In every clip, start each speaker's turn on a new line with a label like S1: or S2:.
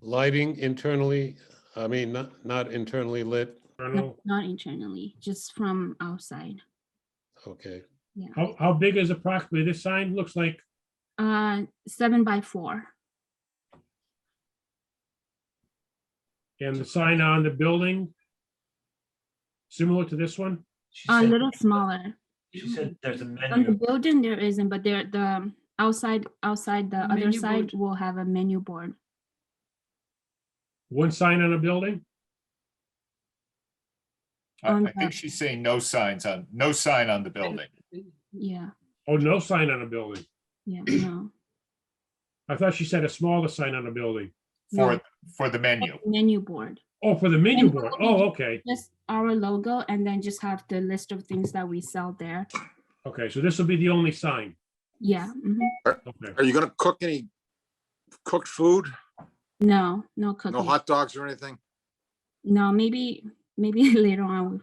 S1: lighting internally, I mean, not, not internally lit,
S2: Colonel,
S3: Not internally, just from outside.
S1: okay.
S3: Yeah.
S2: How, how big is approximately this sign? Looks like,
S3: Uh, seven by four.
S2: and the sign on the building, similar to this one?
S4: She
S3: A
S4: said-
S3: little smaller.
S4: She said there's a
S3: On the
S4: menu.
S3: building, there isn't, but there, the outside, outside the other
S5: Menu
S3: side will have a menu board.
S2: One sign on a building?
S6: I,
S3: on
S6: I think
S3: the-
S6: she's saying no signs on, no sign on the building.
S3: Yeah,
S2: Oh, no sign on a building.
S3: yeah, no.
S2: I thought she said a smaller sign on a building.
S3: no,
S6: for, for the menu.
S3: Menu board,
S2: Oh, for the menu board. Oh, okay.
S3: just our logo and then just have the list of things that we sell there.
S2: Okay, so this will be the only sign.
S3: Yeah, mhm.
S2: Okay.
S7: Are you gonna cook any cooked food?
S3: no, no
S7: No
S3: cooking.
S7: hot dogs or anything?
S3: No, maybe, maybe later on,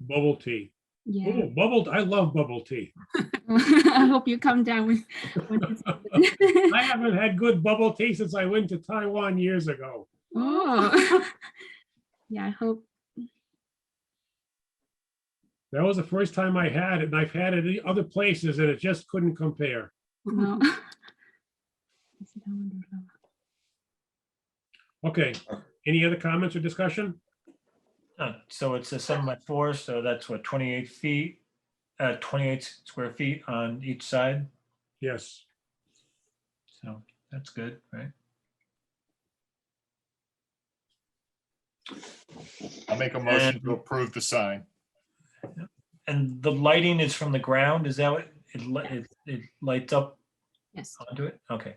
S2: Bubble tea.
S3: yeah.
S2: Oh, bubble, I love bubble tea.
S3: I hope you come down with. when it's-
S2: I haven't had good bubble tea since I went to Taiwan years ago.
S3: Oh. Yeah, I hope,
S2: That was the first time I had it, and I've had it in other places, and it just couldn't compare.
S3: no.
S2: Okay, any other comments or discussion?
S4: Uh, So it's a seven by four, so that's what, twenty-eight feet, uh, twenty-eight square feet on each side.
S2: Yes.
S4: So that's good, right?
S6: I'll make a motion
S4: And-
S6: to approve the sign.
S4: And the lighting is from the ground, is that what, it, li- it, it lights up
S3: Yes,
S4: onto it? Okay.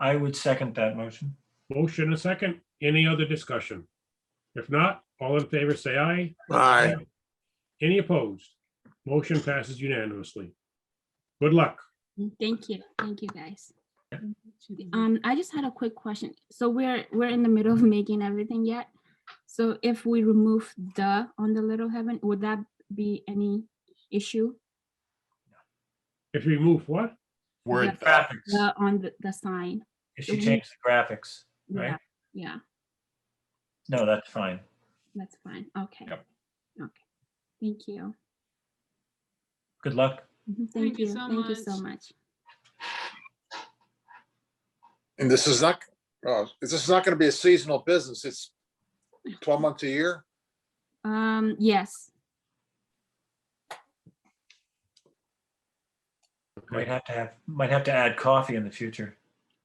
S4: I would second that motion.
S2: Motion and a second. Any other discussion? If not, all in favor, say aye.
S7: Aye.
S2: Any opposed? Motion passes unanimously. Good luck.
S3: thank you, thank you, guys.
S5: Um,
S3: Um, I just had a quick question. So we're, we're in the middle of making everything yet. So if we remove the on the Little Heaven, would that be any issue?
S2: If you remove what?
S6: Word,
S4: Graphics,
S3: The, on the, the sign?
S4: if you change the graphics,
S3: Yeah,
S4: Right.
S3: Yeah,
S4: no, that's fine.
S3: that's fine, okay.
S6: Yep.
S3: Okay, thank you.
S4: Good luck.
S3: Mhm,
S5: Thank
S3: Thank
S5: you
S3: you,
S5: so
S3: thank you so
S5: much.
S3: much.
S7: And this is not, oh, this is not gonna be a seasonal business. It's twelve months a year?
S3: Um, yes,
S4: Might have to have, might have to add coffee in the future.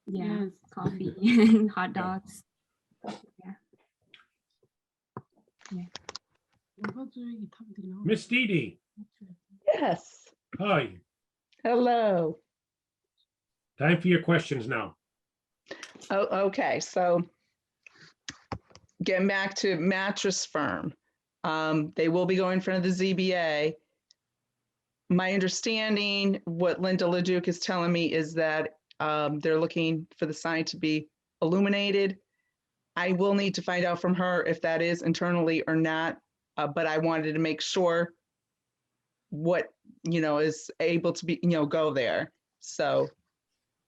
S3: yeah,
S5: Yes.
S3: coffee and hot dogs.
S2: Miss Dee Dee,
S8: Yes,
S2: hi.
S8: hello.
S2: Time for your questions now.
S8: Oh, okay, so getting back to mattress firm. Um, they will be going in front of the ZBA. My understanding, what Linda Leduc is telling me is that um, they're looking for the sign to be illuminated. I will need to find out from her if that is internally or not, uh, but I wanted to make sure what, you know, is able to be, you know, go there. So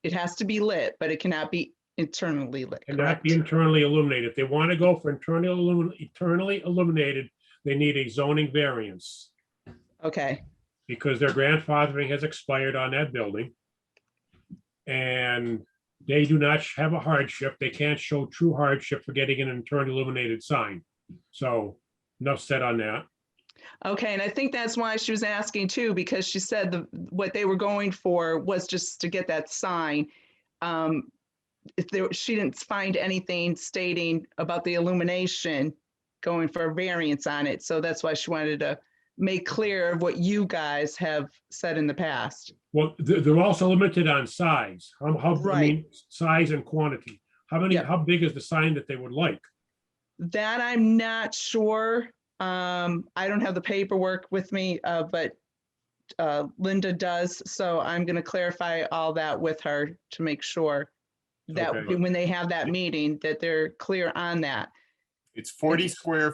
S8: it has to be lit, but it cannot be internally lit.
S2: And not
S8: correct?
S2: be internally illuminated. If they want to go for internal illumin- internally illuminated, they need a zoning variance
S8: Okay,
S2: because their grandfathering has expired on that building. And they do not sh- have a hardship. They can't show true hardship for getting an internal illuminated sign. So enough said on that.
S8: okay, and I think that's why she was asking too, because she said the, what they were going for was just to get that sign. Um, If there, she didn't find anything stating about the illumination going for a variance on it, so that's why she wanted to make clear of what you guys have said in the past.
S2: Well, they're, they're also limited on size. How, how, I
S8: Right.
S2: mean, size and quantity. How many,
S8: Yep.
S2: how big is the sign that they would like?
S8: That I'm not sure. Um, I don't have the paperwork with me, uh, but uh, Linda does, so I'm gonna clarify all that with her to make sure that
S2: Okay.
S8: when they have that meeting, that they're clear on that.
S6: it's forty square